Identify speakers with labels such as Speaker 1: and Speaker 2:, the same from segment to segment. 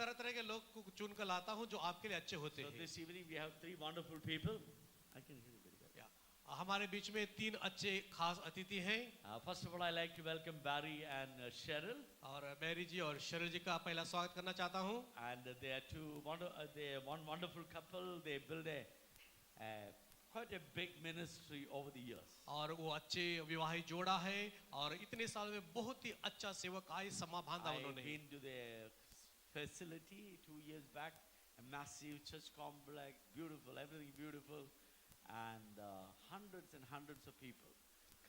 Speaker 1: तरह तरह के लोग को चुन कर लाता हूँ जो आपके लिए अच्छे होते
Speaker 2: So
Speaker 1: हैं
Speaker 2: this evening we have three wonderful people. I can hear you very well.
Speaker 1: या, हमारे बीच में तीन अच्छे खास अतिथि हैं
Speaker 2: Uh, first of all, I'd like to welcome Barry and uh, Cheryl.
Speaker 1: और मैरी जी और शरल जी का पहला स्वागत करना चाहता हूँ
Speaker 2: And uh, they are two wonder, uh, they are one wonderful couple. They build a uh, quite a big ministry over the years.
Speaker 1: और वो अच्छे विवाहित जोड़ा है और इतने साल में बहुत ही अच्छा सेवक आय समा बांधा
Speaker 2: I've
Speaker 1: उन्होंने
Speaker 2: been to their facility two years back, a massive church complex, beautiful, everything beautiful, and uh, hundreds and hundreds of people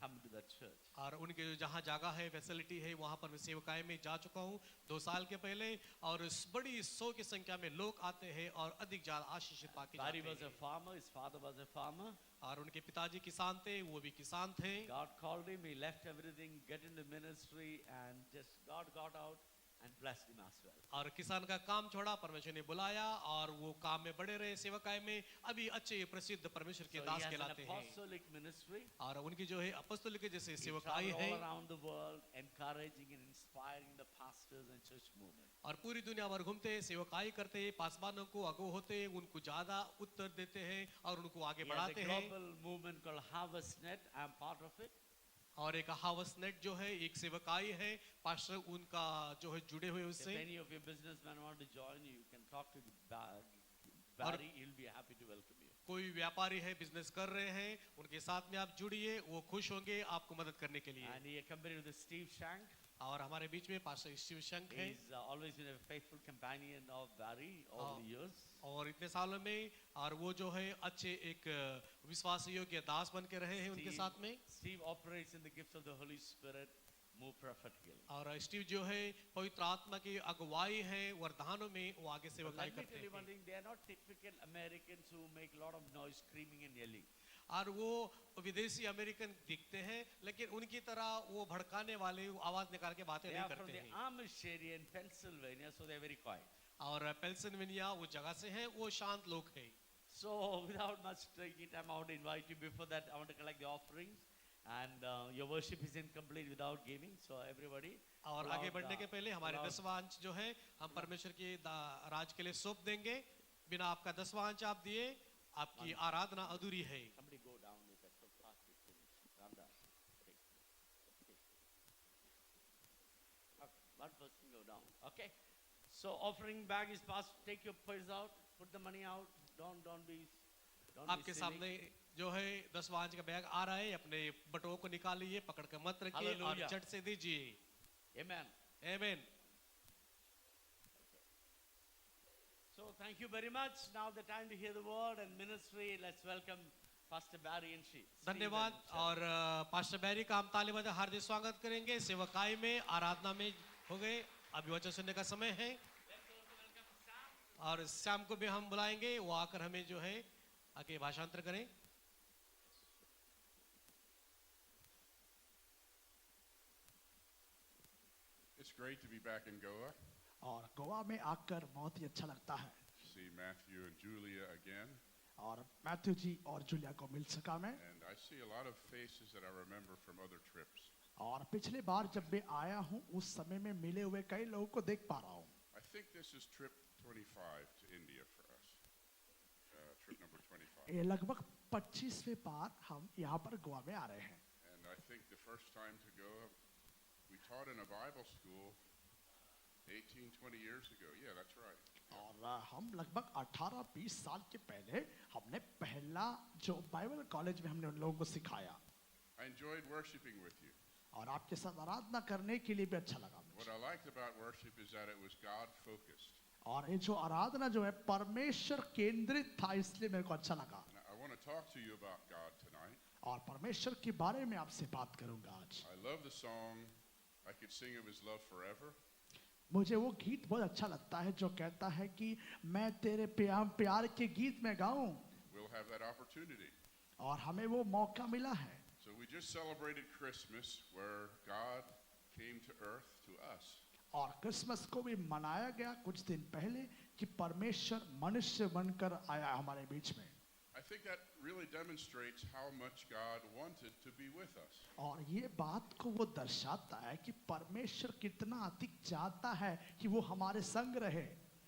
Speaker 2: come to that church.
Speaker 1: और उनके जो जहाँ जगह है फैसिलिटी है वहाँ पर मैं सेवकाएं में जा चुका हूँ दो साल के पहले और इस बड़ी सौ की संख्या में लोग आते हैं और अधिक ज्यादा आशीषित पाके
Speaker 2: Barry
Speaker 1: जाते
Speaker 2: was a
Speaker 1: हैं
Speaker 2: farmer, his father was a farmer.
Speaker 1: और उनके पिताजी किसान थे वो भी किसान थे
Speaker 2: God called him, he left everything, get into ministry, and just God got out and blessed him as well.
Speaker 1: और किसान का काम छोड़ा परमेश्वर ने बुलाया और वो काम में बड़े रहे सेवकाएं में अभी अच्छे प्रसिद्ध परमेश्वर के
Speaker 2: So
Speaker 1: दास
Speaker 2: तो he has
Speaker 1: कहलाते
Speaker 2: an
Speaker 1: हैं
Speaker 2: apostolic ministry.
Speaker 1: और उनकी जो है अपस्तुल के जैसे
Speaker 2: He
Speaker 1: सेवकाई
Speaker 2: traveled
Speaker 1: है
Speaker 2: all around the world, encouraging and inspiring the pastors and church movement.
Speaker 1: और पूरी दुनिया भर घूमते हैं सेवकाई करते हैं पासवानों को अगो होते हैं उनको ज्यादा उत्तर देते हैं और उनको आगे
Speaker 2: He has a
Speaker 1: बढ़ाते हैं
Speaker 2: global movement called Harvest Net. I'm part of it.
Speaker 1: और एक हावस नेट जो है एक सेवकाई है पास्टर उनका जो है जुड़े हुए
Speaker 2: If
Speaker 1: उससे
Speaker 2: any of your businessmen want to join you, you can talk to Ba-
Speaker 1: और-
Speaker 2: Barry. He'll be happy to welcome you.
Speaker 1: कोई व्यापारी है बिजनेस कर रहे हैं उनके साथ में आप जुड़िए वो खुश होंगे आपको मदद करने के लिए
Speaker 2: And he accompanied with Steve Shank.
Speaker 1: और हमारे बीच में पास्टर शिव शंक है
Speaker 2: He's uh, always been a faithful companion of Barry over
Speaker 1: Oh.
Speaker 2: the years.
Speaker 1: और इतने सालों में और वो जो है अच्छे एक विश्वास योग्य दास बन के रहे हैं उनके
Speaker 2: Steve-
Speaker 1: साथ में
Speaker 2: Steve operates in the gifts of the Holy Spirit more prophetically.
Speaker 1: और स्टीव जो है पवित्र आत्मा की अगुवाई है वरदानों में वो आगे
Speaker 2: But
Speaker 1: सेवकाई
Speaker 2: let me tell
Speaker 1: करते
Speaker 2: you one
Speaker 1: हैं
Speaker 2: thing, they are not typical Americans who make a lot of noise screaming and yelling.
Speaker 1: और वो विदेशी अमेरिकन दिखते हैं लेकिन उनकी तरह वो भड़काने वाले वो आवाज निकाल के बातें
Speaker 2: They
Speaker 1: नहीं
Speaker 2: are from
Speaker 1: करते
Speaker 2: the
Speaker 1: हैं
Speaker 2: Amish area in Pennsylvania, so they are very quiet.
Speaker 1: और पेल्सनवेनिया वो जगह से हैं वो शांत लोग हैं
Speaker 2: So without much taking time, I want to invite you. Before that, I want to collect the offerings. And uh, your worship is incomplete without giving. So everybody.
Speaker 1: और
Speaker 2: pull
Speaker 1: आगे
Speaker 2: out
Speaker 1: बढ़ने
Speaker 2: the-
Speaker 1: के पहले हमारे
Speaker 2: pull out-
Speaker 1: दसवां अंश जो है हम परमेश्वर के दा- राज के लिए सौंप देंगे बिना आपका दसवां अंश आप दिए आपकी आराधना अधूरी है
Speaker 2: Somebody go down with that. So fast it finishes. Ramdas, take it. Take it. Okay, One person go down. Okay. So offering bag is passed. Take your purse out. Put the money out. Don't don't be. Don't
Speaker 1: आपके
Speaker 2: be silly.
Speaker 1: सामने जो है दसवां अंश का bag आ रहा है अपने बटुओं को निकालिए पकड़ के मत रखिए और
Speaker 2: Hallelujah.
Speaker 1: चट से दीजिए
Speaker 2: Amen.
Speaker 1: Amen
Speaker 2: So thank you very much. Now the time to hear the word and ministry. Let's welcome Pastor Barry and she.
Speaker 1: धन्यवाद
Speaker 2: Steve and
Speaker 1: और अ, पास्टर बैरी का हम ताली बजा हार्दिक स्वागत करेंगे सेवकाई में आराधना में हो गए अभी वचन सुनने का समय है और शाम को भी हम बुलाएंगे वो आकर हमें जो है आके भाषांतर करें
Speaker 3: It's great to be back in Goa.
Speaker 4: और गोवा में आकर बहुत ही अच्छा लगता है
Speaker 3: See Matthew and Julia again,
Speaker 4: और मैथ्यू जी और जूलिया को मिल सका मैं
Speaker 3: and I see a lot of faces that I remember from other trips.
Speaker 4: और पिछले बार जब मैं आया हूँ उस समय में मिले हुए कई लोगों को देख पा रहा हूँ
Speaker 3: I think this is trip 25 to India for us. Uh, trip number 25.
Speaker 4: ये लगभग 25वें बार हम यहाँ पर गोवा में आ रहे हैं
Speaker 3: And I think the first time to Goa, we taught in a Bible school 18, 20 years ago. Yeah, that's right.
Speaker 4: और अ, हम लगभग 18-20 साल के पहले हमने पहला जो बाइबल कॉलेज में हमने उन लोगों को सिखाया
Speaker 3: I enjoyed worshiping with you.
Speaker 4: और आपके साथ आराधना करने के लिए भी अच्छा लगा
Speaker 3: What
Speaker 4: मुझे
Speaker 3: I liked about worship is that it was God focused.
Speaker 4: और ये जो आराधना जो है परमेश्वर केंद्रित था इसलिए मेरे को अच्छा लगा
Speaker 3: And I- I want to talk to you about God tonight.
Speaker 4: और परमेश्वर के बारे में आपसे बात करूंगा आज
Speaker 3: I love the song, I Could Sing of His Love Forever.
Speaker 4: मुझे वो गीत बहुत अच्छा लगता है जो कहता है कि मैं तेरे प्यार प्यार के गीत में गाऊं
Speaker 3: We'll have that opportunity.
Speaker 4: और हमें वो मौका मिला है
Speaker 3: So we just celebrated Christmas where God came to earth to us.
Speaker 4: और क्रिसमस को भी मनाया गया कुछ दिन पहले कि परमेश्वर मनुष्य बनकर आया हमारे बीच में
Speaker 3: I think that really demonstrates how much God wanted to be with us.
Speaker 4: और ये बात को वो दर्शाता है कि परमेश्वर कितना अधिक चाहता है कि वो हमारे संग रहे